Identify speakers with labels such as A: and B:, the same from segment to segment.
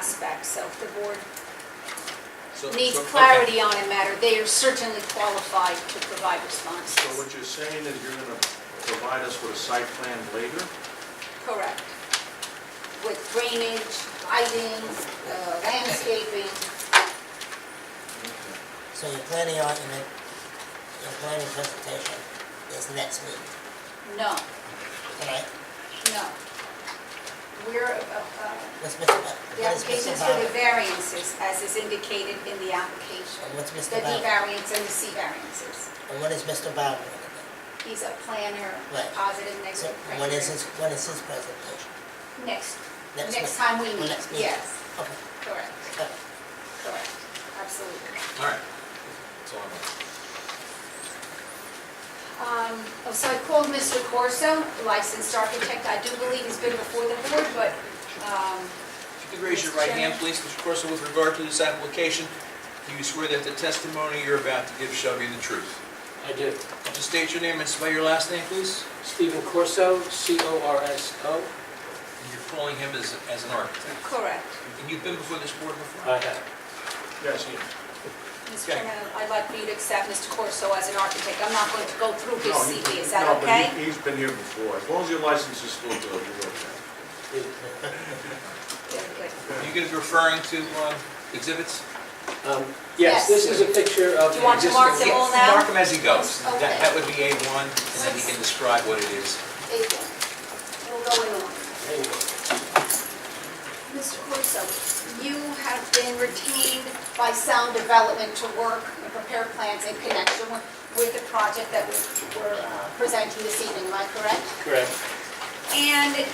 A: aspects of the board
B: So-
A: needs
B: so- okay.
A: clarity on a matter, they are certainly qualified to provide
B: So
A: responses.
B: what you're saying is you're gonna provide us with a site plan later?
A: Correct. With drainage, lighting, uh, landscaping,
C: So you're planning on, in the, your planning presentation is next meeting,
A: no,
C: tonight?
A: no. We're, uh, uh,
C: What's Mr. Ba-
A: the
C: what is Mr.
A: applications for the
C: Bauer?
A: variances, as is indicated in the application,
C: And what's
A: the D
C: Mr. Bauer?
A: variance and the C variances.
C: And what is Mr. Bauer gonna
A: He's a planner,
C: Right.
A: positive,
C: do? So
A: negative.
C: what is
A: criteria.
C: his, what is his presentation?
A: Next,
C: Next
A: next
C: month.
A: time we
C: Well,
A: meet,
C: next meeting.
A: yes,
C: Okay,
A: correct,
C: okay.
A: correct, absolutely.
B: All right. That's all I want.
A: Um, So I called Mr. Corso, licensed architect, I do believe he's been before the board, but, um,
D: If you could raise your right hand, please, Mr. Corso, with regard to this application, do you swear that the testimony you're about to give shall be the truth?
E: I do.
D: Just state your name and spell your last name, please.
E: Stephen Corso, C-O-R-S-O.
D: And You're calling him as, as an architect.
A: correct.
D: And you've been before this board before?
E: I have.
B: Yes, Ian.
A: Mr.
D: Okay.
A: Chairman, I'd like for you to accept Mr. Corso as an architect, I'm not going to go through his
B: No, he-
A: CV, is that
B: no, but he-
A: okay?
B: He's been here before. As long as your license is still good, you're okay.
A: Good, good.
D: Are you going to be referring to um, exhibits?
E: Um,
A: Yes.
E: Yes, this is a picture of.
A: Do you
E: the
A: want to mark
E: existing-
A: them all now?
D: Mark him as he goes. That
A: Okay.
D: that would be A1, and then he can describe what it is.
A: There you go. We'll go in order. Mr. Corso, you have been retained by Sound Development to work and prepare plans in connection with- with the project that we- we're uh, presenting this evening, am I correct?
E: Correct.
A: And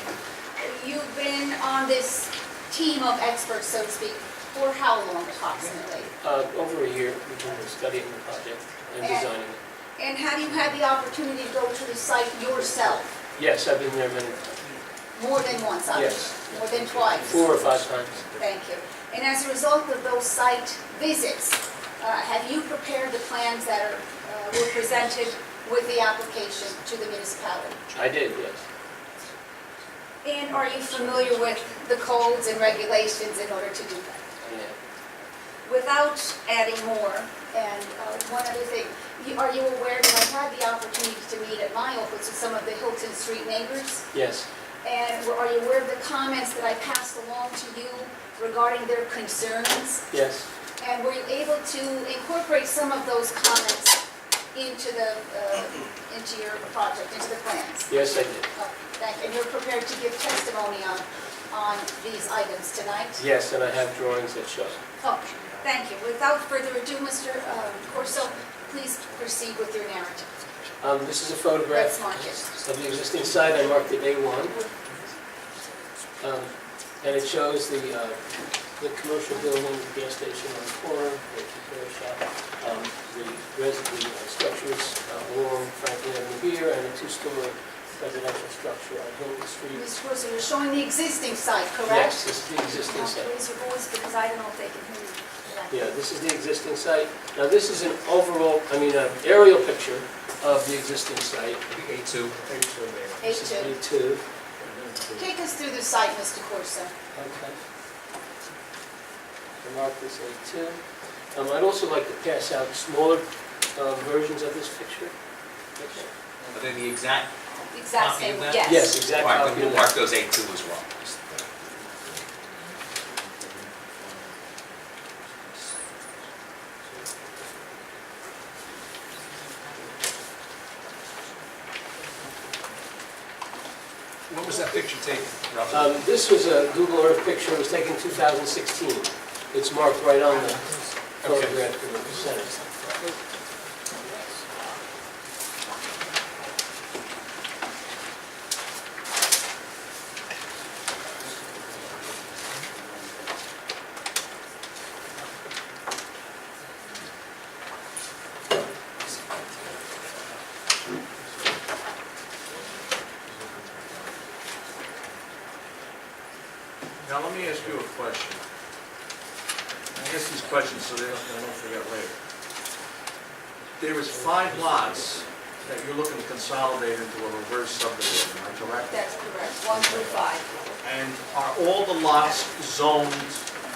A: you've been on this team of experts, so to speak, for how long approximately?
E: Uh, Over a year, we've been studying the project and
A: And-
E: designing it.
A: And have you had the opportunity to go to the site yourself,
E: Yes, I've been there many, times,
A: more than once, I
E: Yes.
A: More than twice?
E: four or five times.
A: Thank you. And as a result of those site visits, uh, have you prepared the plans that are, uh, were presented with the application to the municipality?
E: I did, yes.
A: And are you familiar with the codes and regulations in order to do that?
E: I
A: Without adding more, and uh, one other thing, you- are you aware that I've had the opportunity to meet at my office with some of the Hilton Street neighbors?
E: am. Yes,
A: And were- are you aware of the comments that I passed along to you regarding their concerns?
E: yes,
A: And were you able to incorporate some of those comments into the, uh, into your project, into the plans?
E: yes, I did.
A: Oh, Thank you. And you're prepared to give testimony on, on these items tonight?
E: Yes, and I have drawings that show.
A: Oh, thank you. Without further ado, Mr. um, Corso, please proceed with your narrative.
E: Um, This is a photograph
A: Let's mark it.
E: of the existing site, I marked it A1. Um, And it shows the, uh, the commercial building, the gas station on the corner, the repair shop, um, the res, the uh, structures uh, along Franklin Avenue here, and a two-story residential structure on Hilton Street.
A: Mr. Corso, you're showing the existing site,
E: Yes,
A: correct?
E: this is the existing
A: Now,
E: site.
A: Raise your voice because I don't know if they can hear you.
E: Yeah, this is the existing site. Now, this is an overall, I mean, an aerial picture of the existing site.
D: It'd be A2.
A: Hey,
E: This is
A: Jim.
E: A2.
A: Take us through the site, Mr. Corso.
E: Okay. I mark this A2. Um, I'd also like to pass out smaller um, versions of this picture. Okay.
D: Are they the exact?
A: The Exact
D: Copy of
A: same,
D: that?
A: yes.
E: Yes,
D: All
E: exactly.
D: right, then we'll mark those A2 as well. When was that picture taken, Ralph?
E: Um, This was a Google Earth picture, it was taken 2016. It's marked right on the photograph in the center.
B: Now, let me ask you a question. I ask these questions so they don't, I don't forget later. There was five lots that you're looking to consolidate into a reverse subdivision, am I correct?
A: That's correct, one through five.
B: And are all the lots zoned